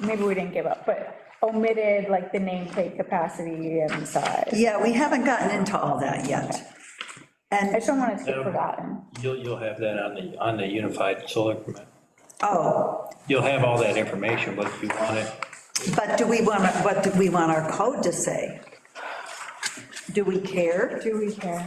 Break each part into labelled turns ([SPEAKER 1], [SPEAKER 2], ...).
[SPEAKER 1] maybe we didn't give up, but omitted like the nameplate capacity and size.
[SPEAKER 2] Yeah, we haven't gotten into all that yet.
[SPEAKER 1] I
[SPEAKER 2] And,
[SPEAKER 1] just don't want it to get forgotten.
[SPEAKER 3] You'll, you'll have that on the, on the unified solar permit.
[SPEAKER 2] oh,
[SPEAKER 3] You'll have all that information, but if you want it,
[SPEAKER 2] but do we want, what do we want our code to say? Do we care?
[SPEAKER 1] Do we care?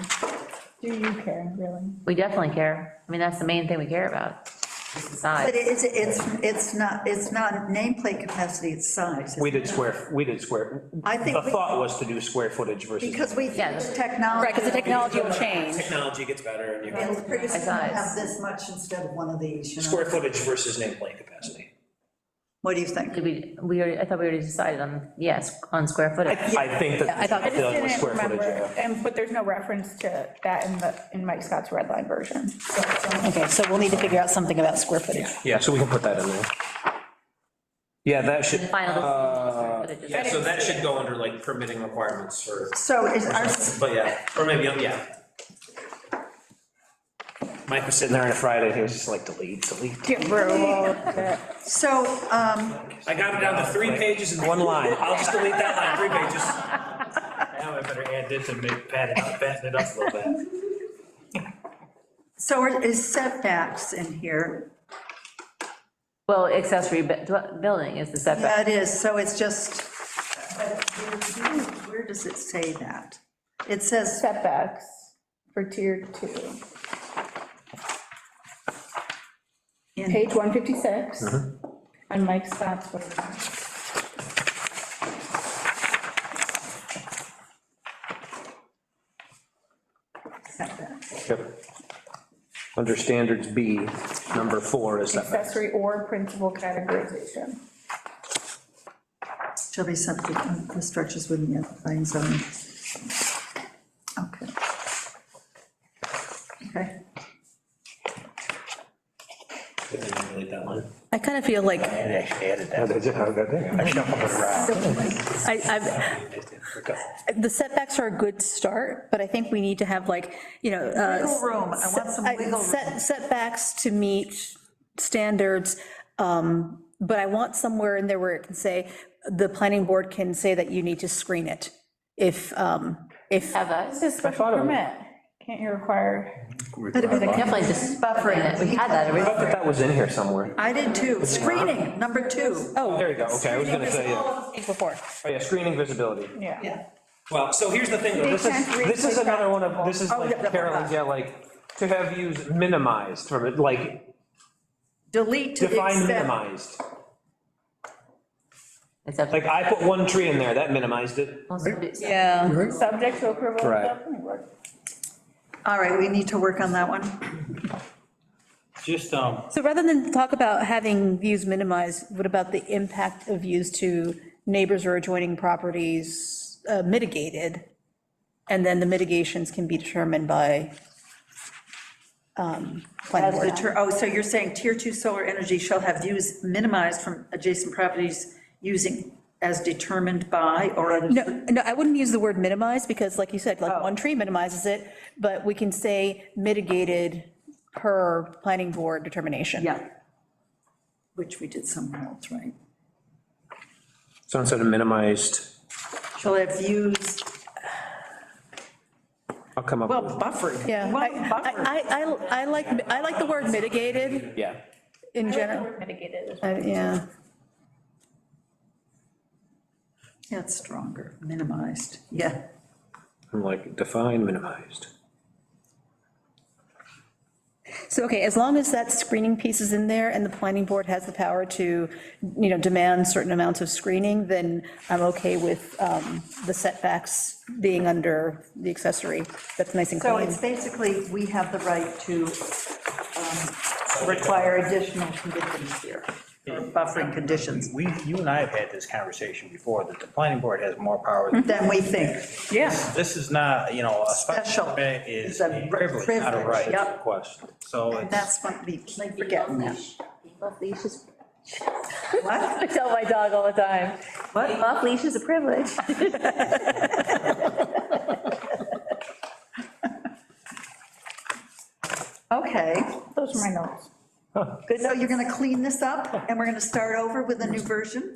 [SPEAKER 1] Do you care, really?
[SPEAKER 4] We definitely care. I mean, that's the main thing we care about, is the
[SPEAKER 2] But
[SPEAKER 4] size.
[SPEAKER 2] it's, it's, it's not, it's not nameplate capacity, it's size.
[SPEAKER 5] We did square, we did square.
[SPEAKER 2] I think
[SPEAKER 5] The
[SPEAKER 2] we-
[SPEAKER 5] thought was to do square footage versus.
[SPEAKER 2] Because we,
[SPEAKER 4] Yeah.
[SPEAKER 2] technology.
[SPEAKER 6] Right, because the technology will change.
[SPEAKER 7] Technology gets better and you
[SPEAKER 2] It's
[SPEAKER 7] have
[SPEAKER 2] pretty soon we'll
[SPEAKER 4] Size.
[SPEAKER 2] have this much instead of one of these, you know?
[SPEAKER 7] square footage versus nameplate capacity.
[SPEAKER 2] What do you think?
[SPEAKER 4] Did we, we already, I thought we already decided on, yes, on square footage.
[SPEAKER 5] I think that.
[SPEAKER 6] I thought-
[SPEAKER 1] I
[SPEAKER 5] the
[SPEAKER 1] just
[SPEAKER 5] thought was
[SPEAKER 1] didn't
[SPEAKER 5] square footage,
[SPEAKER 1] remember,
[SPEAKER 5] yeah.
[SPEAKER 1] and, but there's no reference to that in the, in Mike Scott's red line version.
[SPEAKER 6] Okay, so we'll need to figure out something about square footage.
[SPEAKER 5] Yeah, so we can put that in there. Yeah, that should,
[SPEAKER 4] Final decision on square footage is-
[SPEAKER 7] Yeah, so that should go under like permitting requirements for,
[SPEAKER 2] So is our,
[SPEAKER 7] but yeah, or maybe, oh, yeah.
[SPEAKER 5] Mike was sitting there on a Friday, he was just like, delete, delete.
[SPEAKER 1] Get rid of all of it.
[SPEAKER 2] so, um,
[SPEAKER 7] I got it down to three pages and.
[SPEAKER 5] One line.
[SPEAKER 7] I'll just delete that line, three pages.
[SPEAKER 3] now I better add this and make, pad it up, fatten it up a little bit.
[SPEAKER 2] so is setbacks in here?
[SPEAKER 4] Well, accessory bu- dwe- building is the setback.
[SPEAKER 2] Yeah, it is, so it's just, but where where does it say that? It says,
[SPEAKER 1] Setbacks for tier two.
[SPEAKER 2] in-
[SPEAKER 1] Page 156,
[SPEAKER 5] Mm-hmm.
[SPEAKER 1] on Mike Scott's version.
[SPEAKER 5] Yep. Under standards B, number four is that.
[SPEAKER 1] accessory or principal categorization.
[SPEAKER 2] shall be subject to the structures within the flying zone. Okay. Okay,
[SPEAKER 7] Delete that line.
[SPEAKER 6] I kind of feel like, I, I've, the setbacks are a good start, but I think we need to have like, you know. uh,
[SPEAKER 2] Wiggle room, I want some
[SPEAKER 6] set-
[SPEAKER 2] wiggle
[SPEAKER 6] set-
[SPEAKER 2] room.
[SPEAKER 6] Setbacks to meet standards, um, but I want somewhere in there where it can say, the planning board can say that you need to screen it if, um, if.
[SPEAKER 4] Have us,
[SPEAKER 1] This is special permit. Can't you require?
[SPEAKER 4] definitely just
[SPEAKER 2] Buffering.
[SPEAKER 4] buffering it. We had that
[SPEAKER 5] I thought
[SPEAKER 4] originally.
[SPEAKER 5] that was in here somewhere.
[SPEAKER 2] I did too, screening, number two.
[SPEAKER 6] Oh,
[SPEAKER 5] There you go, okay, I was gonna say, yeah.
[SPEAKER 6] Before.
[SPEAKER 5] Oh, yeah, screening visibility.
[SPEAKER 1] Yeah.
[SPEAKER 7] Well, so here's the thing, though, this
[SPEAKER 5] This is, this is another one of, this is
[SPEAKER 2] Oh, yeah,
[SPEAKER 5] like
[SPEAKER 2] yeah,
[SPEAKER 5] Carolyn's,
[SPEAKER 2] yeah.
[SPEAKER 5] yeah, like, to have views minimized from it, like,
[SPEAKER 2] Delete to the
[SPEAKER 5] define
[SPEAKER 2] extent.
[SPEAKER 5] minimized.
[SPEAKER 4] Except-
[SPEAKER 5] Like, I put one tree in there, that minimized it.
[SPEAKER 6] Yeah.
[SPEAKER 1] Subject to approval of the
[SPEAKER 5] Right.
[SPEAKER 1] planning board.
[SPEAKER 2] All right, we need to work on that one.
[SPEAKER 3] Just, um,
[SPEAKER 6] So rather than talk about having views minimized, what about the impact of views to neighbors or adjoining properties uh, mitigated? And then the mitigations can be determined by um, planning
[SPEAKER 2] As the,
[SPEAKER 6] board.
[SPEAKER 2] ter- oh, so you're saying tier two solar energy shall have views minimized from adjacent properties using as determined by or other.
[SPEAKER 6] No, no, I wouldn't use the word minimize, because like you said, like one tree minimizes it, but we can say mitigated per planning board determination.
[SPEAKER 2] Yeah. Which we did somewhere else, right?
[SPEAKER 5] So instead of minimized,
[SPEAKER 2] Shall have views,
[SPEAKER 5] I'll come up
[SPEAKER 2] well,
[SPEAKER 5] with,
[SPEAKER 2] buffered.
[SPEAKER 6] Yeah,
[SPEAKER 2] Well,
[SPEAKER 6] I,
[SPEAKER 2] buffered.
[SPEAKER 6] I, I- I like, I like the word mitigated
[SPEAKER 5] yeah.
[SPEAKER 6] in
[SPEAKER 1] I like the
[SPEAKER 6] general,
[SPEAKER 1] word Mitigated as well.
[SPEAKER 6] Uh, yeah.
[SPEAKER 2] That's stronger, minimized, yeah.
[SPEAKER 5] I'm like, define minimized.
[SPEAKER 6] So, okay, as long as that screening piece is in there and the planning board has the power to, you know, demand certain amounts of screening, then I'm okay with um, the setbacks being under the accessory. That's nice and
[SPEAKER 2] So
[SPEAKER 6] clean.
[SPEAKER 2] it's basically, we have the right to um, require additional conditions here, or buffering conditions,
[SPEAKER 8] We, you and I have had this conversation before, that the planning board has more power. than-
[SPEAKER 2] than we think.
[SPEAKER 1] Yeah.
[SPEAKER 8] This is not, you know, a
[SPEAKER 2] Special
[SPEAKER 8] special permit
[SPEAKER 2] is
[SPEAKER 8] is
[SPEAKER 2] a
[SPEAKER 8] a privilege, not a
[SPEAKER 2] privilege,
[SPEAKER 8] right.
[SPEAKER 2] yep.
[SPEAKER 8] Question, so it's,
[SPEAKER 2] That's what we, like, forgetting that.
[SPEAKER 4] Off leashes.
[SPEAKER 2] What?
[SPEAKER 4] I tell my dog all the time,
[SPEAKER 2] What?
[SPEAKER 4] being off leash is a privilege.
[SPEAKER 2] Okay,
[SPEAKER 1] Those are my notes.
[SPEAKER 2] So you're going to clean this up, and we're going to start over with a new version?